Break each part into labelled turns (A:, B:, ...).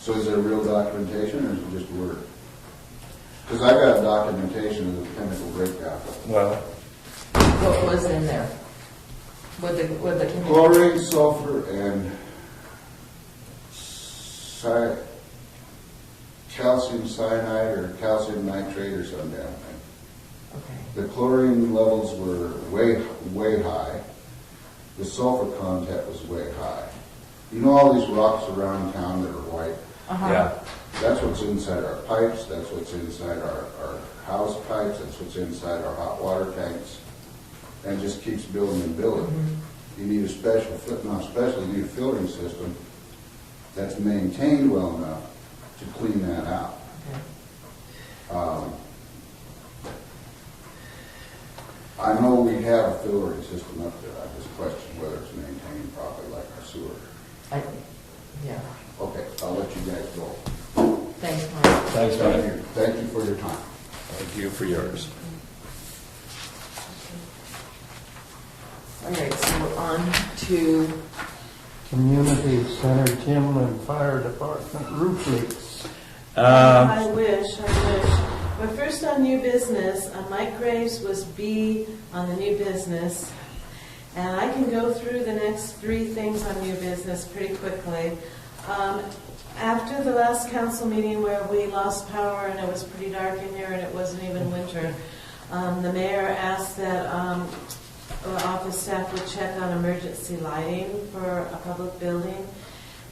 A: So is there real documentation or is it just word? Because I've got documentation of the chemical breakdown.
B: Well,
C: What was in there? With the, with the chemical?
A: Chlorine, sulfur, and ci- calcium cyanide or calcium nitrate or some damn thing.
C: Okay.
A: The chlorine levels were way, way high. The sulfur content was way high. You know all these rocks around town that are white?
C: Uh-huh.
B: yeah,
A: That's what's inside our pipes, that's what's inside our, our house pipes, that's what's inside our hot water tanks. And it just keeps building and building. You need a special, fil- not special, you need a filtering system that's maintained well enough to clean that out.
C: Okay.
A: Um, I know we have a filtering system up there, I just question whether it's maintained properly like our sewer.
C: I, yeah,
A: Okay, I'll let you guys go.
C: thanks, Mike.
B: thanks, Mike.
A: Thank you for your time.
B: Thank you for yours.
C: All right, so we're on to,
D: Community Center Gym and Fire Department roof leaks.
B: Um,
E: I wish, I wish. But first on new business, uh, Mike Graves was B on the new business. And I can go through the next three things on new business pretty quickly. Um, After the last council meeting where we lost power and it was pretty dark in here and it wasn't even winter, um, the mayor asked that um, the office staff would check on emergency lighting for a public building.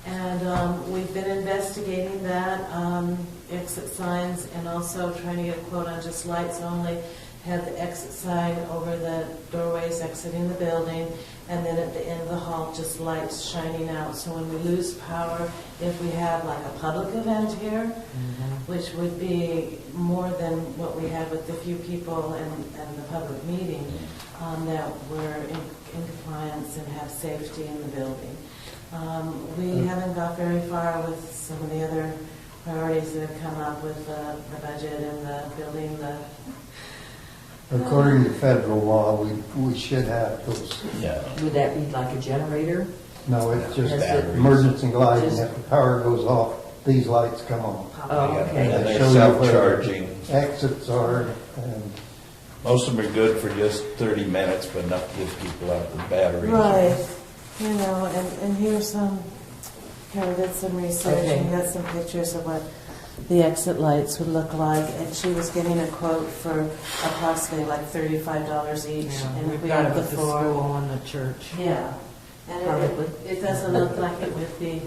E: And um, we've been investigating that, um, exit signs, and also trying to get a quote on just lights only. Have the exit sign over the doorways exiting the building, and then at the end of the hall, just lights shining out. So when we lose power, if we have like a public event here, which would be more than what we had with the few people and, and the public meeting, um, that we're in in compliance and have safety in the building. Um, We haven't got very far with some of the other priorities that have come up with the the budget and the building, the,
D: According to federal law, we, we should have those.
B: Yeah,
C: would that be like a generator?
D: No, it's just
C: That's it.
D: emergency lighting.
C: Just-
D: If the power goes off, these lights come on.
C: Oh, okay.
B: And they're
D: They show you where
B: self-charging.
D: Exits are, and
B: Most of them are good for just 30 minutes, but enough to give people out the batteries.
E: Right, you know, and, and here's some, Carol did some research
C: Okay.
E: and got some pictures of what the exit lights would look like, and she was getting a quote for approximately like thirty-five dollars each, and if we have the four.
C: and the church.
E: Yeah, and it- it,
C: Probably.
E: it doesn't look like it would be,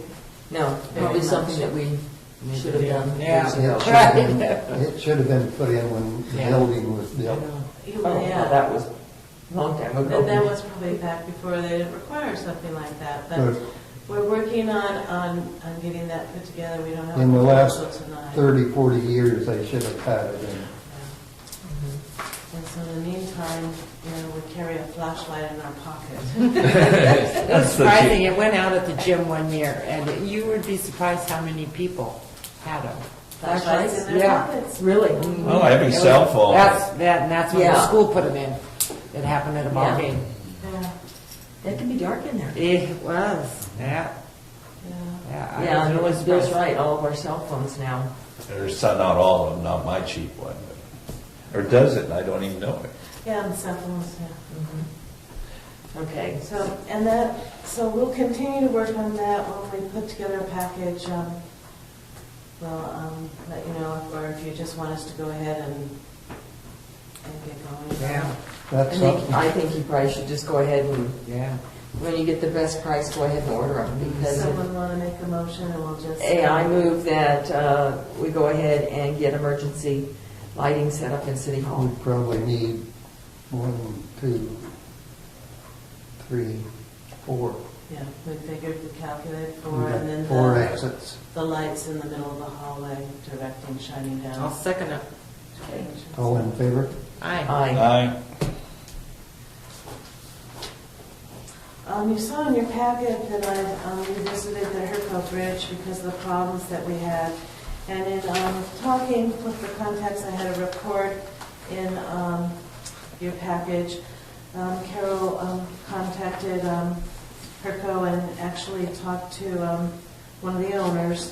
C: No, probably
E: Very
C: something that
E: much.
C: we should have done.
F: Yeah.
D: it should have been, it should have been put in when the
F: Yeah.
D: building was built.
F: Well,
E: yeah.
C: Oh, well, that was a long time ago.
E: And that was probably back before they didn't require something like that,
D: But
E: but we're working on, on, on getting that put together, we don't have.
D: In the
E: a
D: last
E: proposal tonight.
D: 30, 40 years, they should have had it in.
E: And so in the meantime, you know, we carry a flashlight in our pocket.
F: It's surprising, it went out at the gym one year, and you would be surprised how many people had them.
E: Flashlights in their
F: Yeah.
E: pockets. Mm.
C: Really?
B: Oh, every cell phone.
F: That's, that, and that's when
C: Yeah.
F: the school put them in. It happened at a
C: Yeah.
F: ball game.
E: Yeah,
C: That can be dark in there.
F: It was, yeah,
E: yeah.
F: yeah. I
C: Yeah,
F: was really
C: and Bill's
F: surprised.
C: right, all of our cell phones now.
B: There's some, not all of them, not my cheap one. but- Or does it? I don't even know it.
E: Yeah, and cell phones, yeah.
C: Okay.
E: So, and that, so we'll continue to work on that when we put together a package. um, We'll um, let you know, or if you just want us to go ahead and, and get going.
F: Yeah,
C: I
D: That's
C: think,
D: something,
C: I think you probably should just go ahead and,
F: yeah.
C: when you get the best price, go ahead and order them,
E: Does
C: because if
E: someone want to make a motion and we'll just?
C: Hey, I move that uh, we go ahead and get emergency lighting set up in City Hall.
D: we probably need one, two, three, four.
E: Yeah, we figured, we calculated
D: We've
E: four,
D: got
E: and then
D: Four
E: the,
D: exits.
E: the lights in the middle of the hallway directing, shining
F: I'll
E: down.
F: second it.
D: Oh. All in favor?
F: Aye.
C: Aye.
B: I,
E: Um, you saw in your packet that I um, revisited the Herco Bridge because of the problems that we had. And in, um, talking with the contacts, I had a report in, um, your package. Um, Carol, um, contacted, um, Herco and actually talked to, um, one of the owners